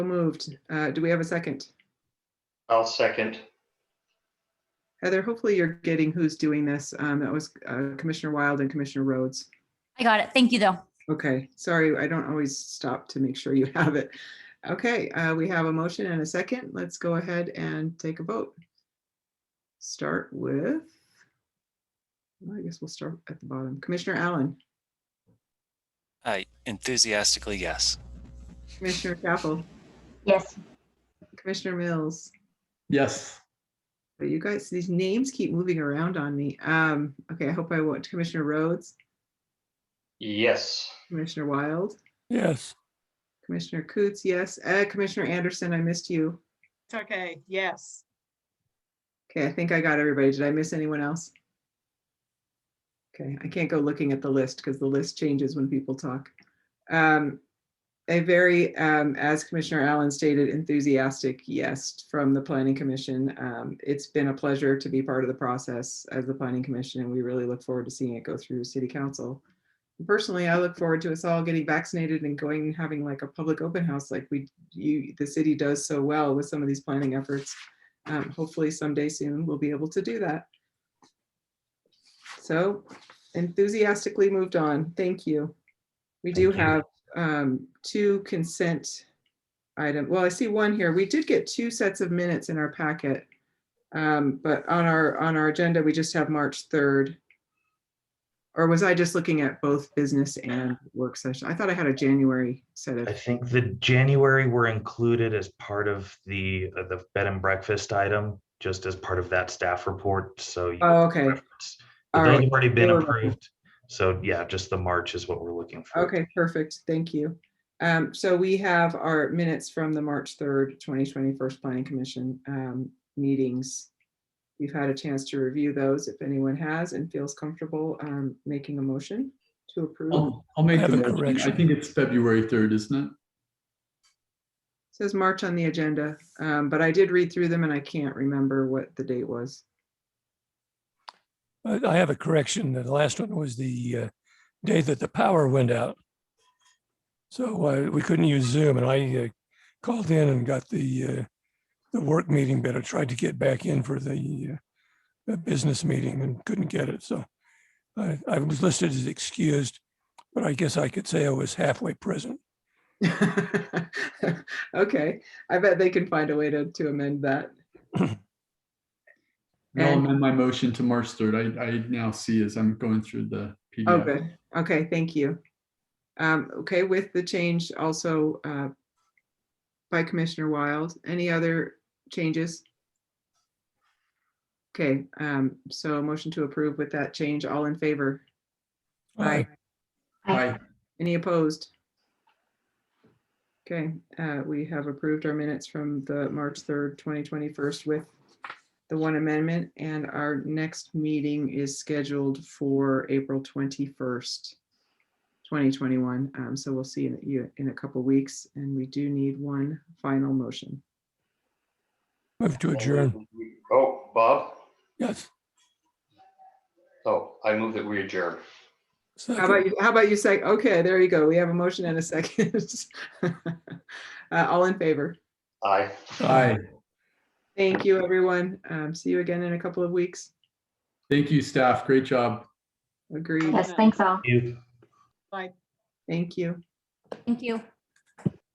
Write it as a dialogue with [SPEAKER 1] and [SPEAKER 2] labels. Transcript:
[SPEAKER 1] So Moved. Uh, Do we have a second?
[SPEAKER 2] I'll second.
[SPEAKER 1] Heather, hopefully you're getting who's doing this. Um, That was uh, Commissioner Wild and Commissioner Rhodes.
[SPEAKER 3] I got it. Thank you, though.
[SPEAKER 1] Okay, sorry, I don't always stop to make sure you have it. Okay, uh, we have a motion and a second. Let's go ahead and take a vote. Start with, well, I guess we'll start at the bottom. Commissioner Allen,
[SPEAKER 4] I Uh, enthusiastically yes.
[SPEAKER 1] Commissioner Chapel,
[SPEAKER 5] Yes.
[SPEAKER 1] Commissioner Mills.
[SPEAKER 6] Yes.
[SPEAKER 1] But you guys, these names keep moving around on me. Um, okay, I hope I won't. Commissioner Rhodes,
[SPEAKER 2] Yes.
[SPEAKER 1] Commissioner Wild,
[SPEAKER 6] Yes.
[SPEAKER 1] Commissioner Coots, yes. Uh, Commissioner Anderson, I missed you.
[SPEAKER 7] It's okay, yes.
[SPEAKER 1] Okay, I think I got everybody. Did I miss anyone else? Okay, I can't go looking at the list because the list changes when people talk. Um, a very, um, as Commissioner Allen stated, enthusiastic yes from the Planning Commission. Um, it's been a pleasure to be part of the process as the Planning Commission, and we really look forward to seeing it go through City Council. Personally, I look forward to us all getting vaccinated and going and having like a public open house like we, you, the city does so well with some of these planning efforts um, hopefully someday soon we'll be able to do that. So enthusiastically moved on. Thank you. We do
[SPEAKER 2] Thank you.
[SPEAKER 1] have um, two consent item. Well, I see one here. We did get two sets of minutes in our packet. Um, but on our, on our agenda, we just have March 3rd. Or was I just looking at both business and work session? I thought I had a January set
[SPEAKER 8] I
[SPEAKER 1] of,
[SPEAKER 8] think the January were included as part of the, uh, the bed and breakfast item, just as part of that staff report, so. you
[SPEAKER 1] oh, okay.
[SPEAKER 8] reference-
[SPEAKER 1] All
[SPEAKER 8] but Those
[SPEAKER 1] right.
[SPEAKER 8] have already been
[SPEAKER 1] They were-
[SPEAKER 8] approved, so yeah, just the March is what we're looking for.
[SPEAKER 1] Okay, perfect. Thank you. Um, so we have our minutes from the March third, twenty twenty-first Planning Commission um meetings. You've had a chance to review those if anyone has and feels comfortable um making a motion to
[SPEAKER 8] Oh.
[SPEAKER 1] approve.
[SPEAKER 6] I'll, I'll make
[SPEAKER 9] have
[SPEAKER 6] the
[SPEAKER 9] a
[SPEAKER 6] motion. I
[SPEAKER 9] correction.
[SPEAKER 6] think it's February 3rd, isn't it?
[SPEAKER 1] Says March on the agenda, um, but I did read through them and I can't remember what the date was.
[SPEAKER 9] I I have a correction. The last one was the uh, day that the power went out. So uh, we couldn't use Zoom and I uh, called in and got the, uh, the work meeting, but I tried to get back in for the uh, uh, business meeting and couldn't get it. So I, I was listed as excused, but I guess I could say I was halfway present.
[SPEAKER 1] Okay, I bet they can find a way to to amend that.
[SPEAKER 6] I'll
[SPEAKER 1] And-
[SPEAKER 6] amend my motion to March 3rd. I, I now see as I'm going through
[SPEAKER 1] Oh,
[SPEAKER 6] the PDF.
[SPEAKER 1] good. Okay, thank you. Um, okay, with the change also, uh, by Commissioner Wild, any other changes? Okay, um, so a motion to approve with that change, all in favor?
[SPEAKER 9] I
[SPEAKER 6] Aye.
[SPEAKER 1] Any opposed? Okay, uh, we have approved our minutes from the March 3rd, 2021 with the one amendment, and our next meeting is scheduled for April 21st, 2021. Um, So we'll see you in a couple weeks, and we do need one final motion.
[SPEAKER 9] Move to adjourn.
[SPEAKER 2] Oh, Bob?
[SPEAKER 9] Yes.
[SPEAKER 2] Oh, I move that we adjourn.
[SPEAKER 1] How about you, how about you say, okay, there you go. We have a motion and a second. Uh, All in favor?
[SPEAKER 2] Aye.
[SPEAKER 6] Aye.
[SPEAKER 1] Thank you, everyone. Um, See you again in a couple of weeks.
[SPEAKER 6] Thank you, staff. Great job.
[SPEAKER 1] Agreed.
[SPEAKER 5] Yes, thanks all.
[SPEAKER 8] You.
[SPEAKER 1] Thank you.
[SPEAKER 3] Thank you.